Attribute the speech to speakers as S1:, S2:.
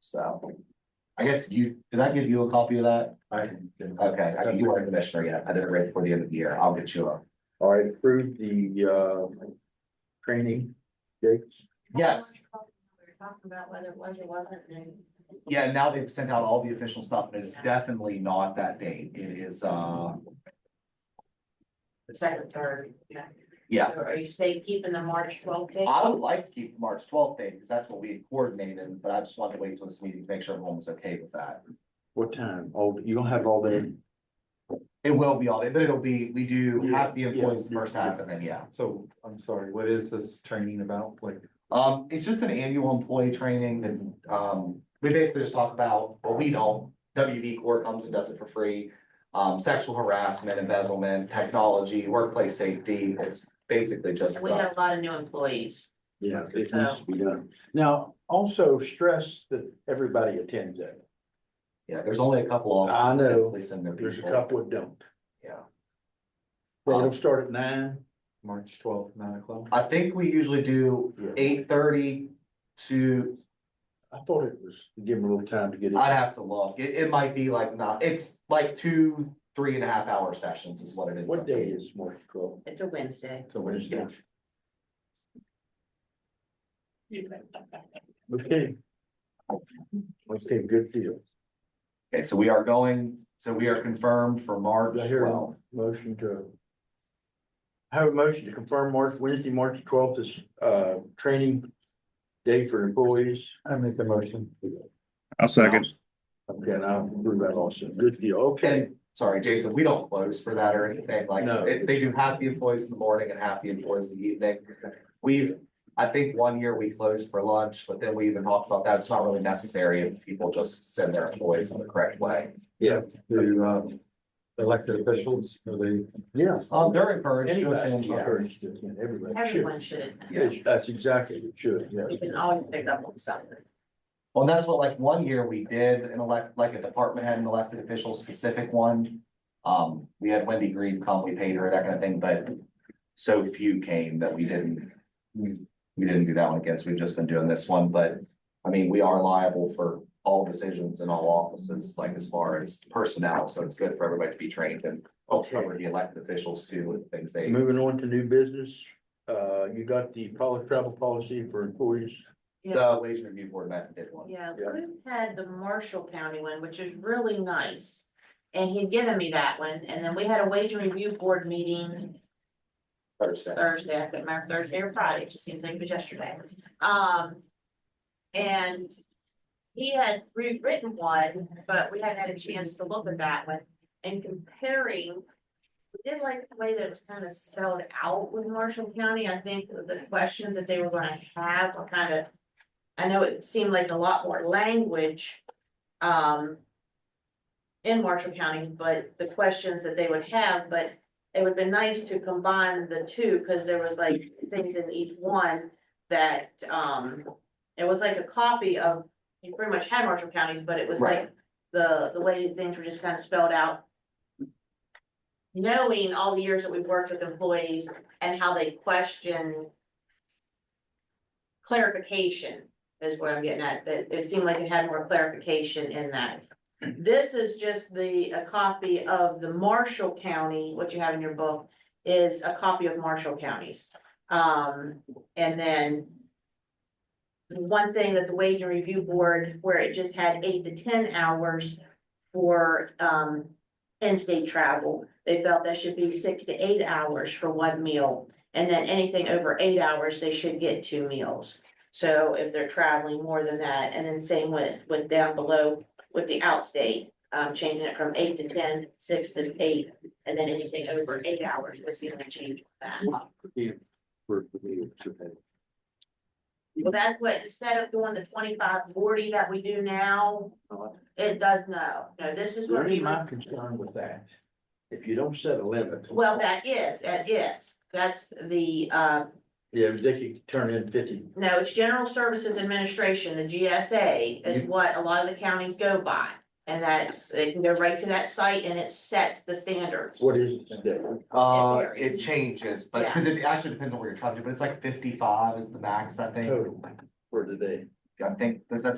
S1: so. I guess you, did I give you a copy of that?
S2: I.
S1: Okay, I- you are commissioner yet, I did it right before the end of the year, I'll get you a.
S2: I approved the, uh, training dates.
S1: Yes.
S3: We were talking about whether it was or wasn't, and
S1: Yeah, now they've sent out all the official stuff, and it's definitely not that date, it is, uh,
S3: the second, third. yeah.
S1: yeah.
S3: So Are you staying, keeping the March twelve date?
S1: I would like to keep the March twelfth date, because that's what we had coordinated, but I just wanted to wait till this meeting to make sure everyone was okay with that.
S2: What time? Oh, you don't have all day.
S1: It will be all day, but it'll be, we do half the
S2: Yeah, yeah,
S1: employees the
S2: yeah,
S1: first half,
S2: yeah.
S1: and then, yeah.
S4: So, I'm sorry, what is this training about? Like,
S1: Um, it's just an annual employee training that, um, we basically just talk about, well, we don't, WV Corps comes and does it for free. Um, sexual harassment, embezzlement, technology, workplace safety, it's basically just.
S3: We
S1: uh,
S3: got a lot of new employees.
S2: Yeah, it needs to be done. Now, also stress that everybody attends it.
S1: Yeah, there's only a couple of.
S2: I know.
S1: They send their
S2: There's a
S1: people.
S2: couple that don't.
S1: Yeah. Um,
S2: Well, It'll start at nine.
S4: March twelfth, nine o'clock?
S1: I think we usually do eight thirty to,
S2: I thought it was, give them a little time to get
S1: I'd
S2: it.
S1: have to look, it, it might be like not, it's like two, three and a half hour sessions is what it is.
S2: What day is March twelfth?
S3: It's a Wednesday.
S2: So Wednesday. Okay. Okay, good deal.
S1: Okay, so we are going, so we are confirmed for March
S2: Do I hear
S1: twelfth.
S2: a motion to? I Have a motion to confirm March, Wednesday, March twelfth is, uh, training day for employees. I make the motion.
S5: I'll second.
S2: Okay, and I'll approve that also. Good deal. Okay.
S1: Okay, sorry, Jason, we don't close for that or anything, like,
S2: No.
S1: it- they do half the employees in the morning and half the employees in the evening. We've, I think one year we closed for lunch, but then we even talked about that, it's not really necessary if people just send their employees in the correct way.
S4: The, um, elected officials, are they?
S2: Yeah.
S1: Um, they're encouraged to attend,
S2: Anybody,
S1: yeah.
S2: encouraged to attend, everybody should.
S3: Everyone should attend.
S2: Yes, that's exactly what should,
S3: We
S2: yeah.
S3: can always pick up on something.
S1: Well, that's what, like, one year we did an elect, like a department had an elected official specific one. Um, we had Wendy Grieve come, we paid her, that kind of thing, but so few came that we didn't. We we didn't do that one again, so we've just been doing this one, but, I mean, we are liable for all decisions in all offices, like as far as personnel, so it's good for everybody to be trained and. Hopefully, cover the elected officials too, with things they,
S2: Moving on to new business, uh, you got the policy, travel policy for employees.
S3: Yeah,
S1: the wage review board met and did one.
S3: yeah,
S2: Yeah.
S3: we had the Marshall County one, which is really nice. And he'd given me that one, and then we had a wage review board meeting
S1: Thursday.
S3: Thursday, I couldn't remember Thursday or Friday, it just seems like it was yesterday. Um, and he had rewritten one, but we hadn't had a chance to look at that one and comparing. We did like the way that it was kind of spelled out with Marshall County, I think the questions that they were gonna have were kind of. I know it seemed like a lot more language, um. In Marshall County, but the questions that they would have, but it would have been nice to combine the two, because there was like things in each one that, um, it was like a copy of, you pretty much had Marshall counties, but it was like the, the way things were just kind of spelled out. Knowing all the years that we've worked with employees and how they question clarification is what I'm getting at, that it seemed like it had more clarification in that. This is just the, a copy of the Marshall County, what you have in your book is a copy of Marshall counties. Um, and then one thing that the Wage and Review Board, where it just had eight to ten hours for, um, in-state travel, they felt that should be six to eight hours for one meal. And then anything over eight hours, they should get two meals. So if they're traveling more than that, and then same with, with down below, with the outstate, um, changing it from eight to ten, six to eight, and then anything over eight hours was the only change with that.
S2: For the meeting today.
S3: Well, that's what, instead of doing the twenty-five forty that we do now, it does no, no, this is what
S2: Really,
S3: we,
S2: my concern with that, if you don't set a limit.
S3: well, that is, that is, that's the, uh,
S2: Yeah, they could turn in fifty.
S3: no, it's General Services Administration, the GSA, is what a lot of the counties go by. And that's, they can go right to that site and it sets the standard.
S2: What is it today?
S1: Uh,
S3: It
S1: it
S3: varies.
S1: changes, but,
S3: Yeah.
S1: cause it actually depends
S2: Oh.
S1: on where you're traveling, to, but it's like fifty-five is the max, I think.
S2: Total for today.
S1: I think, does that